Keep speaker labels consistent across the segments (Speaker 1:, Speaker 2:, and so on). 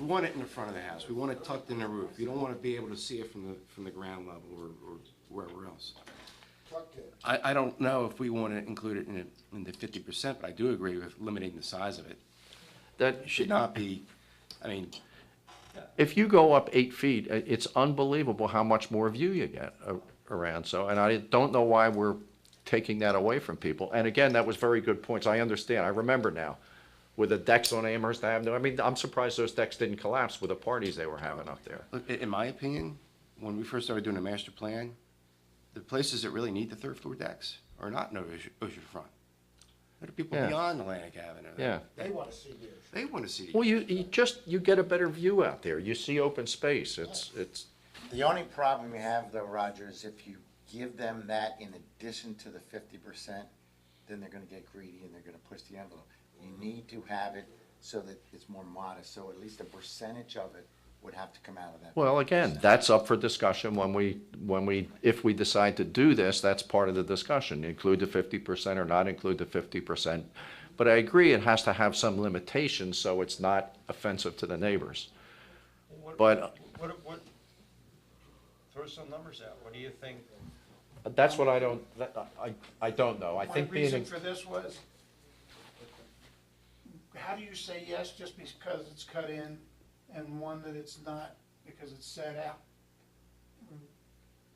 Speaker 1: want it in the front of the house, we want it tucked in the roof, you don't wanna be able to see it from the, from the ground level or, or wherever else.
Speaker 2: tucked in.
Speaker 1: I, I don't know if we wanna include it in, the- in the fifty percent, but I do agree with limiting the size of it.
Speaker 3: That
Speaker 1: Should
Speaker 3: should,
Speaker 1: not be, I mean,
Speaker 3: if you go up eight feet, i- it's unbelievable how much more view you get a- around, so, and I don't know why we're taking that away from people. And again, that was very good points, I understand, I remember now, with the decks on Amherst Avenue, I mean, I'm surprised those decks didn't collapse with the parties they were having up there.
Speaker 1: Look, i- in my opinion, when we first started doing the master plan, the places that really need the third floor decks are not in ocean- oceanfront. There are people
Speaker 3: Yeah.
Speaker 1: beyond Atlantic Avenue. that-
Speaker 3: Yeah.
Speaker 2: They want to see theirs.
Speaker 1: They want to see.
Speaker 3: Well, you, you just, you get a better view out there, you see open space, it's, it's,
Speaker 4: The only problem you have though, Roger, is if you give them that in addition to the fifty percent, then they're gonna get greedy and they're gonna push the envelope. You need to have it so that it's more modest, so at least a percentage of it would have to come out of that.
Speaker 3: well, again, that's up for discussion when we, when we, if we decide to do this, that's part of the discussion, include the fifty percent or not include the fifty percent. But I agree, it has to have some limitations, so it's not offensive to the neighbors.
Speaker 5: What-
Speaker 3: But-
Speaker 5: What, what, throw some numbers out, what do you think?
Speaker 3: That's what I don't, that, I, I don't know, I
Speaker 2: My
Speaker 3: think
Speaker 2: reason
Speaker 3: being,
Speaker 2: for this was, how do you say yes just because it's cut in and one that it's not because it's set out?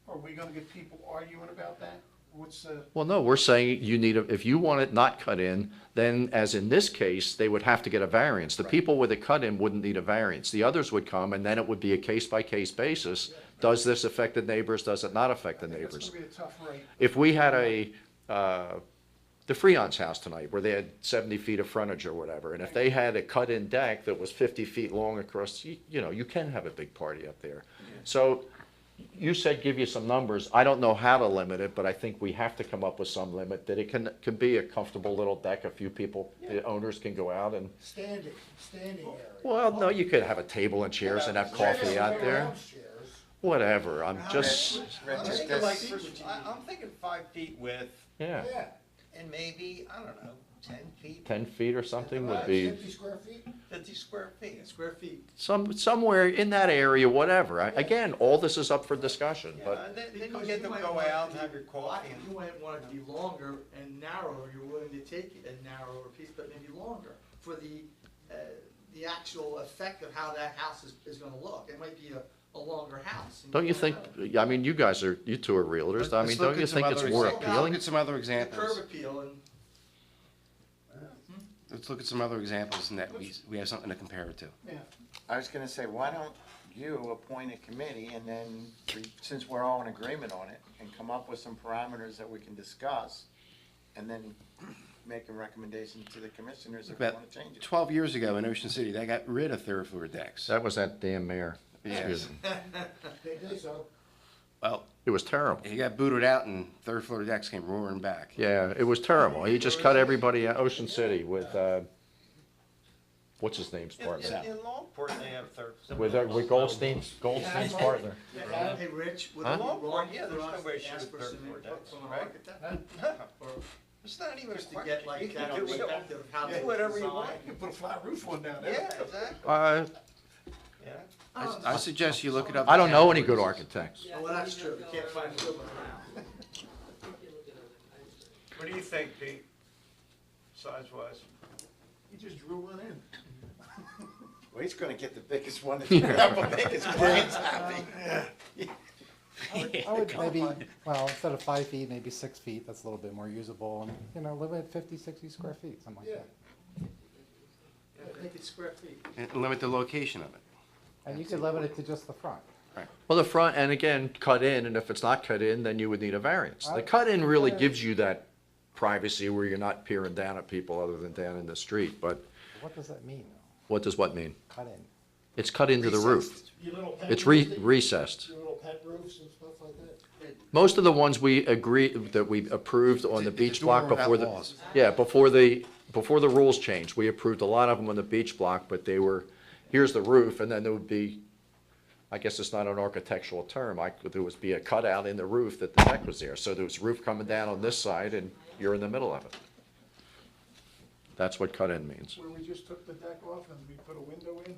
Speaker 2: Are we gonna get people arguing about that? What's the,
Speaker 3: well, no, we're saying you need, a if you want it not cut in, then as in this case, they would have to get a variance. The people with a cut in wouldn't need a variance, the others would come, and then it would be a case by case basis. Does this affect the neighbors, does it not affect the neighbors?
Speaker 2: that's gonna be a tough rate.
Speaker 3: if we had a, uh, the Freon's house tonight, where they had seventy feet of frontage or whatever, and if they had a cut-in deck that was fifty feet long across, you, you know, you can have a big party up there. So, you said give you some numbers, I don't know how to limit it, but I think we have to come up with some limit, that it can, can be a comfortable little deck, a few people, the owners can go out and,
Speaker 2: Standing, standing area.
Speaker 3: well, no, you could have a table and chairs and have coffee out there, whatever, I'm just,
Speaker 4: Rich,
Speaker 5: I'm
Speaker 4: is
Speaker 5: thinking
Speaker 4: this-
Speaker 5: like, I, am thinking five feet width,
Speaker 3: yeah,
Speaker 2: Yeah.
Speaker 5: and maybe, I don't know, ten feet,
Speaker 3: ten feet or something would be.
Speaker 2: Uh, Fifty square feet?
Speaker 5: fifty square feet. Square feet.
Speaker 3: some, somewhere in that area, whatever. I- Again, all this is up for discussion,
Speaker 5: Yeah,
Speaker 3: but
Speaker 5: and then, then you
Speaker 6: Because
Speaker 5: get
Speaker 6: you
Speaker 5: them
Speaker 6: might
Speaker 5: go
Speaker 6: want it
Speaker 5: out
Speaker 6: to
Speaker 5: and
Speaker 6: be
Speaker 5: have your
Speaker 6: Well,
Speaker 5: coffee.
Speaker 6: You might want it to be longer and narrower, you're willing to take a narrower piece, but maybe longer, for the, uh, the actual effect of how that house is, is gonna look, it might be a, a longer house. and
Speaker 3: don't you think,
Speaker 6: know.
Speaker 3: I mean, you guys are, you two are realtors, I mean,
Speaker 1: Let's look
Speaker 3: don't you
Speaker 1: at some
Speaker 3: think it's
Speaker 1: other
Speaker 3: more
Speaker 1: examples. Look
Speaker 3: appealing?
Speaker 1: at some other
Speaker 6: The curb
Speaker 1: examples.
Speaker 6: appeal and.
Speaker 1: Let's look at some other examples and that we, we have something to compare it to.
Speaker 2: Yeah.
Speaker 4: I was gonna say, why don't you appoint a committee and then, we- since we're all in agreement on it, and come up with some parameters that we can discuss, and then make a recommendation to the commissioners if they wanna
Speaker 1: About
Speaker 4: change it.
Speaker 1: twelve years ago in Ocean City, they got rid of third floor decks.
Speaker 3: That was that damn mayor. Excuse
Speaker 1: Yes.
Speaker 3: me.
Speaker 2: They did so.
Speaker 1: Well,
Speaker 3: It was terrible.
Speaker 1: he got booted out and third floor decks came roaring back.
Speaker 3: Yeah, it was terrible. He just cut everybody out, Ocean City with, uh, what's his name's
Speaker 5: In, in-
Speaker 3: partner?
Speaker 5: in Longport, they have third.
Speaker 3: With, uh, with Goldstein's, Goldstein's partner.
Speaker 6: Hey, Rich, would it be
Speaker 5: Huh?
Speaker 6: wrong
Speaker 5: Yeah, there's
Speaker 6: for
Speaker 5: no
Speaker 6: us
Speaker 5: way
Speaker 6: to
Speaker 5: she
Speaker 6: ask
Speaker 5: would
Speaker 6: for
Speaker 5: third
Speaker 6: some
Speaker 5: floor
Speaker 6: input
Speaker 5: decks,
Speaker 6: from an
Speaker 5: right?
Speaker 6: architect? Or
Speaker 5: It's not even a
Speaker 6: Just to
Speaker 5: question,
Speaker 6: get
Speaker 5: you can
Speaker 6: like that
Speaker 5: do it all.
Speaker 6: perspective of how
Speaker 5: Do
Speaker 6: they
Speaker 5: whatever you
Speaker 6: design.
Speaker 5: want.
Speaker 2: You put a flat roof on down
Speaker 5: Yeah,
Speaker 2: there.
Speaker 5: exactly,
Speaker 3: Uh,
Speaker 5: yeah.
Speaker 1: I, I suggest you look it up.
Speaker 3: I don't know any good architects.
Speaker 6: Oh, well, that's true, you can't find a good one around.
Speaker 5: What do you think, Pete? Size wise?
Speaker 2: You just drew one in.
Speaker 4: Well, he's gonna get the biggest one that's gonna make his clients happy.
Speaker 7: I would maybe, well, instead of five feet, maybe six feet, that's a little bit more usable, and, you know, live at 50, 60 square feet, something like
Speaker 2: Yeah.
Speaker 7: that.
Speaker 6: Make it square feet.
Speaker 1: And limit the location of it.
Speaker 7: And you could limit it to just the front.
Speaker 3: Well, the front, and again, cut in, and if it's not cut in, then you would need a variance. The cut in really gives you that privacy where you're not peering down at people other than down in the street, but
Speaker 7: What does that mean, though?
Speaker 3: what does what mean?
Speaker 7: Cut in.
Speaker 3: It's cut into the roof.
Speaker 2: Your little pet
Speaker 3: It's re-
Speaker 2: roofs that-
Speaker 3: recessed.
Speaker 2: Your little pet roofs and stuff like that?
Speaker 3: Most of the ones we agree, that we approved on the
Speaker 1: It's a- it's a
Speaker 3: beach block
Speaker 1: door without
Speaker 3: before the,
Speaker 1: walls.
Speaker 3: yeah, before the, before the rules changed, we approved a lot of them on the beach block, but they were, here's the roof, and then there would be, I guess it's not an architectural term, I, there would be a cutout in the roof that the deck was there, so there was roof coming down on this side, and you're in the middle of it. That's what cut-in means.
Speaker 2: Where we just took the deck off and we put a window in?